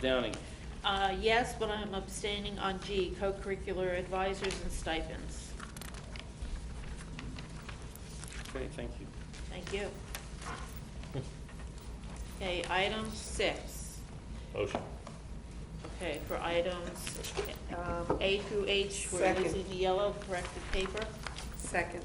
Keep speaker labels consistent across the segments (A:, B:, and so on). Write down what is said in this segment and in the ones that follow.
A: Downing,
B: Uh, yes, but I'm abstaining on G, co-curricular advisors and stipends.
A: okay, thank you.
B: Thank you. Okay, item six.
C: Motion.
B: Okay, for items um, A through H, we're
D: Second.
B: using the yellow corrected paper.
D: Second,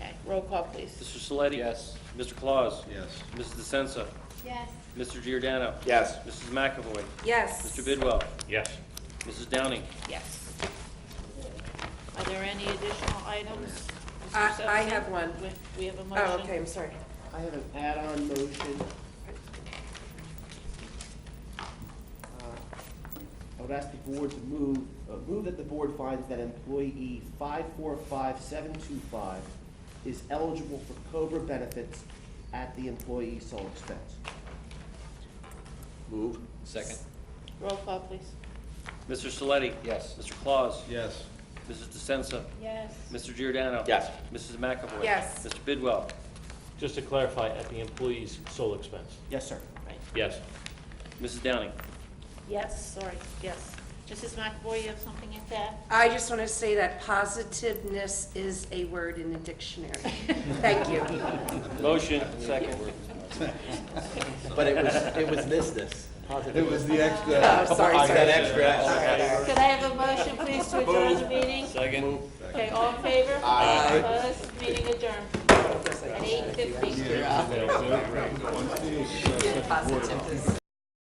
B: Okay, roll call, please.
A: Mr. Saletti?
C: Yes.
A: Mr. Claus?
E: Yes.
A: Mrs. DeSensa?
F: yes,
A: Mr. Giordano?
C: Yes.
A: Mrs. McAvoy?
D: yes.
A: Mr. Bidwell?
C: Yes.
A: Mrs. Downing?
B: Yes. Are there any additional items? Mr.
D: I- I
B: Sexton?
D: have one.
B: We- We have a motion.
D: Oh, okay, I'm sorry.
G: I have an add-on motion. Uh, I would ask the board to move, uh, move that the board finds that employee 545725 is eligible for COBRA benefits at the employee's sole expense.
E: Move.
C: Second.
B: Roll call, please.
A: Mr. Saletti?
C: Yes.
A: Mr. Claus?
E: Yes.
A: Mrs. DeSensa?
F: yes,
A: Mr. Giordano?
C: Yes.
A: Mrs. McAvoy?
D: Yes.
A: Mr. Bidwell?
C: Just to clarify, at the employee's sole expense.
G: Yes, sir.
B: Right.
C: Yes.
A: Mrs. Downing?
B: Yes, sorry, yes. Mrs. McAvoy, you have something at that?
D: I just want to say that positiveness is a word in the dictionary. Thank you.
A: Motion, second.
H: But it was, it was this, this.
E: It was the
D: Oh,
E: extra.
D: sorry,
H: I got
D: sorry.
H: extra.
B: Could I have a motion, please, to adjourn the meeting?
C: Second.
B: Okay, all in favor? Aye. Opposed? Meeting adjourned at eight fifty.
D: Positiveness.